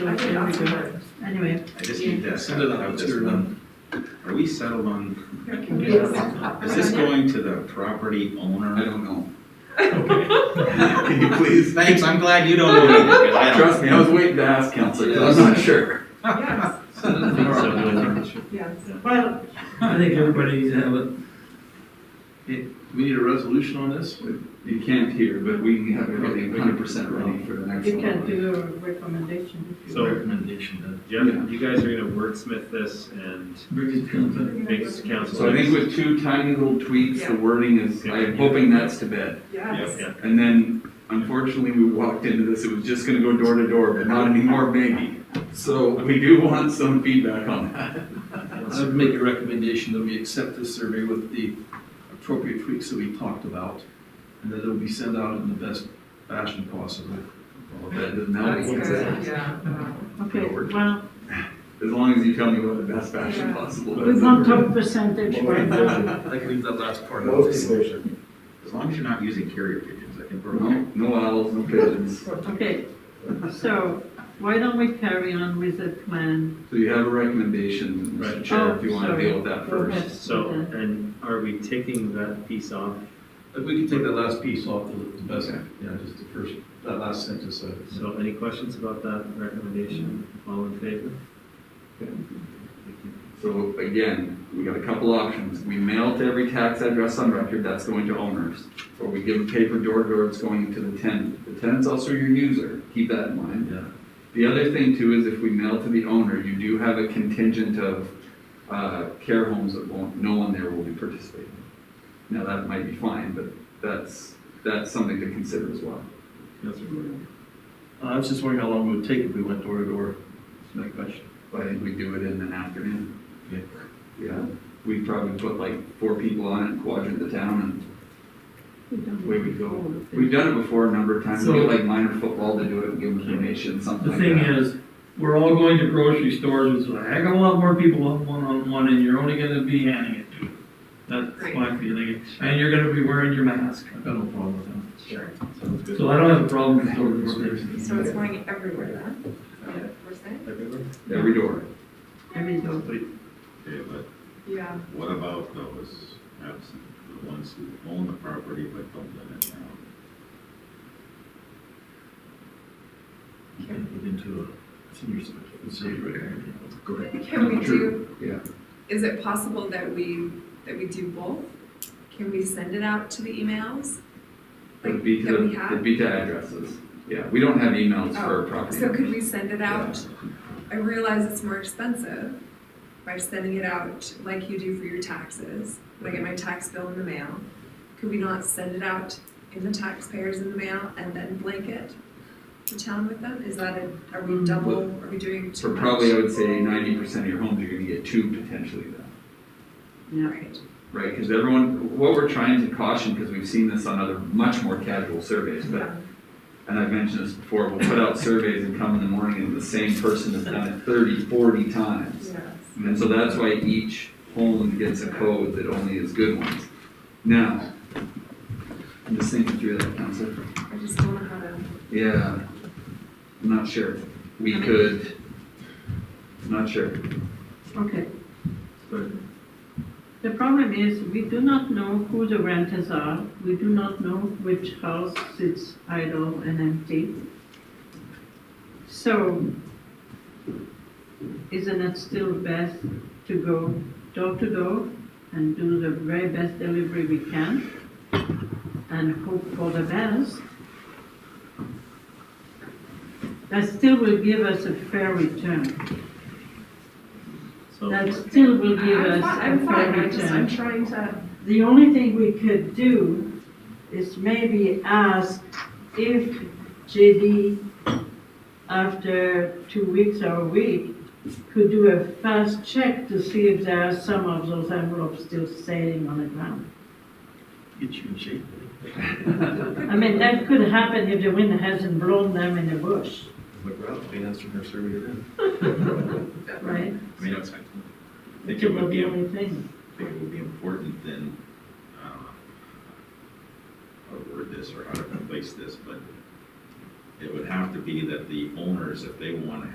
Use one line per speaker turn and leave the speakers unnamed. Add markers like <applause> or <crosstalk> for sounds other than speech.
I think I'll do it. Anyway.
I just need that,
Send it out
have this
to,
one. Are we settled on, is this going to the property
I
owner?
don't know.
Okay.
Can you please, thanks, I'm glad you don't own it, because I don't.
Trust me, I was waiting to ask council, 'cause I'm not sure.
Yes, <laughs>
<laughs>
yes. Well,
I think everybody needs to have a, Hey, we need a resolution on this?
You can't hear, but we can have everything hundred percent ready for the next
you
one.
can do a recommendation. if you
So-
Recommendation,
Jeff, you guys are gonna wordsmith this and
uh, bring it to council.
want.
make this council.
So I think with two tiny little tweaks, the wording is, I'm hoping that's to bed.
Yes.
Yep, yeah.
And then unfortunately, we walked into this, it was just gonna go door to door, but not anymore, maybe. So we do want some feedback on that.
<laughs> I'd make a recommendation that we accept this survey with the appropriate tweaks that we talked about, and that it'll be sent out in the best fashion possible.
That doesn't
That's
matter.
good, yeah. wow. Okay, well,
As long as you tell me what the best fashion possible.
we won't talk percentage right now.
I can leave that last part out.
As long as you're not using carrier pigeons, I think we're okay.
No, no owls, no pigeons.
Okay, so why don't we carry on with the plan?
So you have a recommendation, Mr.
Right.
Chair, if you
Oh,
wanna
sorry.
deal with that
Go
first.
ahead.
So, and are we taking that piece off?
If we could take that last piece off, the the best, yeah, just the first, that last sentence. uh,
So any questions about that recommendation? All in favor?
So again, we got a couple options. We mail to every tax address on record, that's going to owners. Or we give a paper door to door, it's going to the tenant. The tenant's also your user, keep that in mind.
Yeah.
The other thing too is if we mail to the owner, you do have a contingent of uh, care homes that won't, no one there will be participating. Now, that might be fine, but that's, that's something to consider as well.
Councilor Gordon?
Uh, I was just wondering how long it would take if we went door to door. That's my question.
But I think we do it in an afternoon.
Yeah.
Yeah, we probably put like four people on it, quadrant the town and
We don't
Way we
need
go.
all of this.
We've done it before a number of times, we
So-
get like minor football to do it, give them donation, something
The
like
thing
that.
is, we're all going to grocery stores, and so a heck of a lot more people want one-on-one, and you're only gonna be handing it to. them. That's my feeling, and you're gonna be wearing your mask,
I've got no problem with that.
Sure,
Sounds good.
so I don't have a problem with door-to-door.
so it's going everywhere then? Yeah, We're saying?
Everyone?
Every door.
Every door.
Okay, but
Yeah.
what about those absent, the ones who own the property but don't live in town?
You can get into a senior center, it's a regular. Go ahead.
Can we
True,
do,
yeah.
is it possible that we, that we do both? Can we send it out to the emails?
It'd be
that
to,
we have?
it'd be to addresses. Yeah, we don't have emails for
Oh,
property.
So could
owners.
we send it out? I realize it's more expensive by sending it out like you do for your taxes, when I get my tax bill in the mail. Could we not send it out in the taxpayers in the mail and then blanket the town with them? Is that a, are we double, are we doing too
So
much?
Mm, probably I would say ninety percent of your homes, you're gonna get two potentially then.
Yeah.
Right.
Right, because everyone, what we're trying to caution, because we've seen this on other much more casual surveys, but and I've mentioned this before, we'll put out surveys and come in the morning and the same person has done it 30, 40 times.
Yes.
And so that's why each home gets a code that only is good ones. Now, I'm just thinking through that, Counselor.
I just don't know how to.
Yeah, I'm not sure. We could, not sure.
Okay.
Good.
The problem is, we do not know who the renters are, we do not know which house sits idle and empty. So, isn't it still best to go door to door and do the very best delivery we can? And hope for the best? That still will give us a fair return,
So,
that still will give us
I'm fine,
a fair
I'm fine,
return.
I just, I'm trying to,
The only thing we could do is maybe ask if JD, after two weeks or a week, could do a fast check to see if there are some of those envelopes still sailing on the ground.
Get you in shape.
I mean, that could happen if the wind hasn't blown them in the bush,
Look around, we answered our survey then.
right?
I mean, it's- I think it would be,
the
I
only thing.
think it would be important then, I don't know how to word this or how to place this, but it would have to be that the owners, if they wanna